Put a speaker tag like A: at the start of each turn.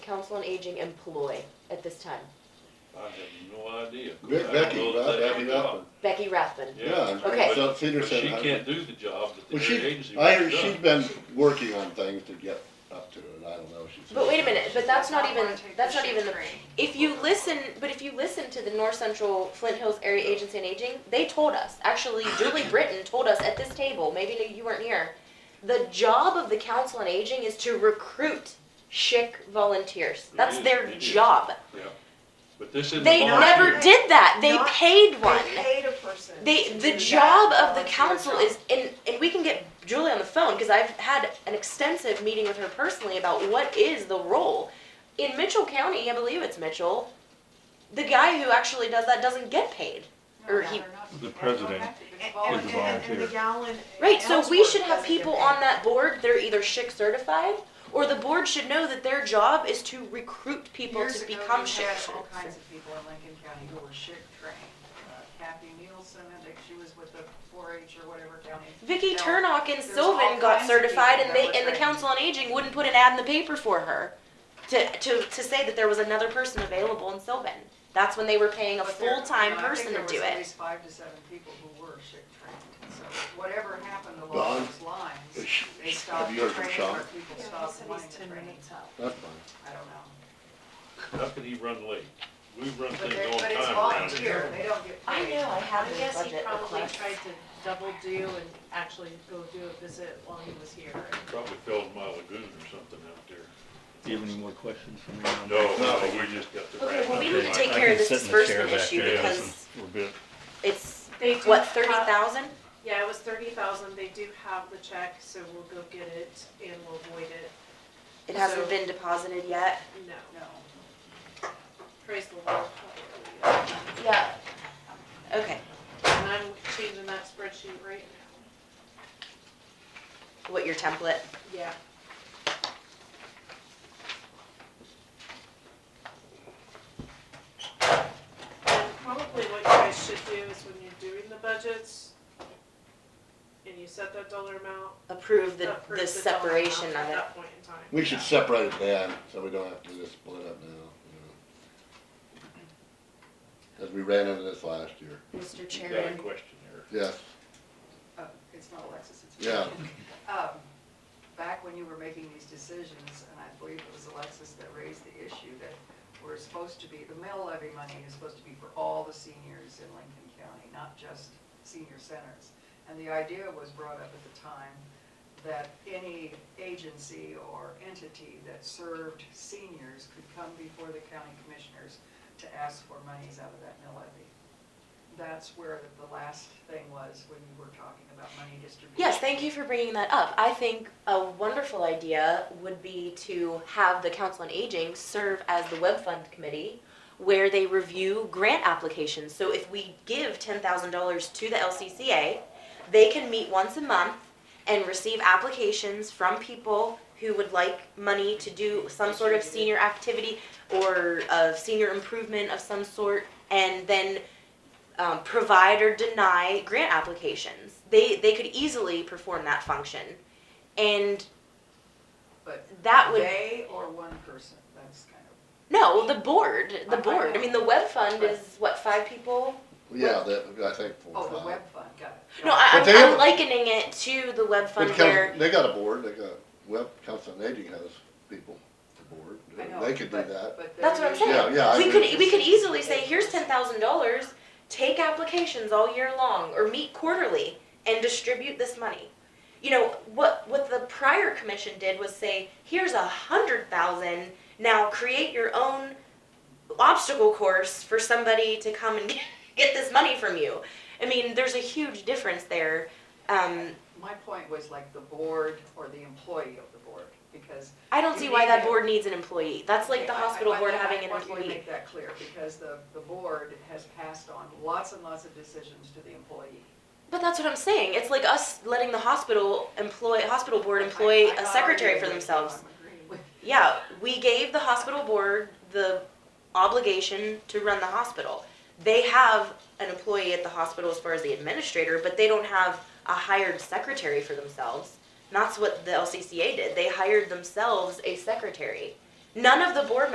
A: Council on Aging employ at this time?
B: I have no idea.
C: Be- Becky,
B: I don't know if
C: right,
B: they
C: Abby
B: do or not.
C: Rathman.
A: Becky Rathman?
C: Yeah,
A: Okay.
C: so Cedar
B: But
C: said.
B: she
C: I-
B: can't do the job that the
C: Well,
B: state
C: she,
B: agency
C: I
B: wants
C: heard she's
B: done.
C: been working on things to get up to it, I don't know, she's.
A: But wait a minute, but that's not
D: I wanna
A: even,
D: take
A: that's
D: the
A: not even the,
D: shade
A: if you listen, but if you listen to the North Central Flint Hills Area Agency on Aging, they told us, actually Julie Britton told us at this table, maybe you weren't here, the job of the Council on Aging is to recruit chic volunteers.
B: It
A: That's
B: is,
A: their
B: it is.
A: job.
B: Yeah, but this isn't.
A: They never
D: volunteer.
A: did that. They
D: Not-
A: paid one.
D: They paid a person.
A: They,
D: to do
A: the
D: that
A: job of the
D: volunteer
A: council
D: job.
A: is, and, and we can get Julie on the phone, cause I've had an extensive meeting with her personally about what is the role. In Mitchell County, I believe it's Mitchell, the guy who actually does that doesn't get paid. Or he,
E: The president.
D: And,
E: Is a
D: and, and, and the
E: volunteer.
D: Gowan.
A: right, so we
D: Ellsworth
A: should have
D: doesn't
A: people
D: get
A: on
D: paid.
A: that board that are either SHIC certified, or the board should know that their job is to recruit people
D: Years
A: to
D: ago,
A: become
D: we
A: SHIC
D: had All
A: certified.
D: kinds of people in Lincoln County who were shit trained. Uh, Kathy Nielsen, I think she was with the four H or whatever county.
A: Vicky
D: No,
A: Turnock and
D: there's
A: Sylvan
D: all
A: got
D: kinds of
A: certified
D: people
A: and they,
D: that
A: and the
D: were
A: Council on Aging wouldn't put an ad in the paper for her to, to, to say that there was another person available in Sylvan. That's when they were paying a
D: But there-
A: full-time
D: you know, uh, I
A: person
D: think
A: to
D: there
A: do
D: was at
A: it.
D: least five to seven people who were shit trained. So whatever happened
C: Well,
D: along those lines,
C: Is she-
D: they
C: Have
D: stopped
C: you
D: the
C: heard from
D: training
C: Sean?
D: or people stopped wanting the training.
C: That's fine.
D: I don't know.
B: How could he run late? We run
D: But
B: things
D: they're,
B: on
D: but it's
B: time around
D: volunteer,
B: here.
D: they don't get
F: I
D: paid.
F: know, I have
A: His
F: a guess he
A: budget
F: probably
A: requests.
F: tried to double do and actually go do a visit while he was here.
B: Probably filled my lagoon or something out there.
E: Do you have any more questions for me? on
B: No,
E: that?
B: no, we just got the.
A: Okay, well, we need
E: Okay,
A: to take
E: I- I
A: care of
E: can
A: this
E: sit in the chair
A: disbursement
E: back
A: issue
E: there and
A: because
E: listen for a bit.
A: it's,
F: They do
A: what,
F: have-
A: thirty thousand?
F: Yeah, it was thirty thousand, they do have the check, so we'll go get it and we'll void it,
A: It hasn't
F: So-
A: been deposited yet.
F: no,
D: No.
F: praise the Lord. hallelujah.
A: Yeah. Okay,
F: And I'm changing that spreadsheet right now,
A: what, your template?
F: yeah. And Probably what you guys should do is when you're doing the budgets, and you set that dollar amount,
A: Approve the,
F: approve
A: the
F: dollar amount
A: separation of
F: At
A: it.
F: that point in time.
C: We should separate it then, so we don't have to just split up now, you know. Cause we ran into this last year.
A: Mr.
B: You got a
A: Chairman,
B: question there.
C: Yes,
D: Uh, It's not Alexis, it's.
C: Yeah.
D: Um, Back when you were making these decisions, and I believe it was Alexis that raised the issue that we're supposed to be, the mill levy money is supposed to be for all the seniors in Lincoln County, not just senior centers. And the idea was brought up at the time that any agency or entity that served seniors could come before the county commissioners to ask for monies out of that mill levy. That's where the last thing was when you were talking about money distribution.
A: Yes, thank you for bringing that up. I think a wonderful idea would be to have the Council on Aging serve as the Web Fund Committee where they review grant applications. So if we give ten thousand dollars to the LCCA, they can meet once a month and receive applications from people who would like money to do some sort of senior activity or a senior improvement of some sort, and then um, provide or deny grant applications. They they could easily perform that function, and
D: But
A: that would
D: They or one person, that's kind of,
A: no the board the
D: I- I
A: board. I,
D: know.
A: mean the web fund is what five people.
C: yeah, that, I think four, or
D: oh, the
C: five.
D: web fund, got it.
A: No, I,
C: But
A: I'm,
C: they
A: I'm
C: have-
A: likening it to the web
C: But
A: fund
C: coun-
A: where
C: They got a board, they got, well, Council on Aging has people, the board,
D: I know,
C: they could do
D: but-
C: that.
D: but
A: That's what
D: they're
A: I'm saying.
C: Yeah, yeah, I
A: we
C: agree.
A: could we could easily say here's ten thousand dollars. Take applications all year long, or meet quarterly and distribute this money. You know what what the prior commission did was say here's a hundred thousand. Now create your own obstacle course for somebody to come and get this money from you. I mean, there's a huge difference there. Um,
D: My point was like the board or the employee of the board, because.
A: I don't see why that board needs an employee. That's like the
D: I- I-
A: hospital
D: I-
A: board
D: I
A: having an
D: want you to
A: employee.
D: Make that clear, because the, the board has passed on lots and lots of decisions to the employee.
A: But that's what I'm saying. It's like us letting the hospital employ hospital board employ
D: I- I
A: a
D: thought
A: secretary
D: already
A: for
D: I'm
A: themselves.
D: agreeing with-
A: Yeah, we gave the hospital board the obligation to run the hospital. They have an employee at the hospital as far as the administrator, but they don't have a hired secretary for themselves. And that's what the LCCA did. They hired themselves a secretary. None of the board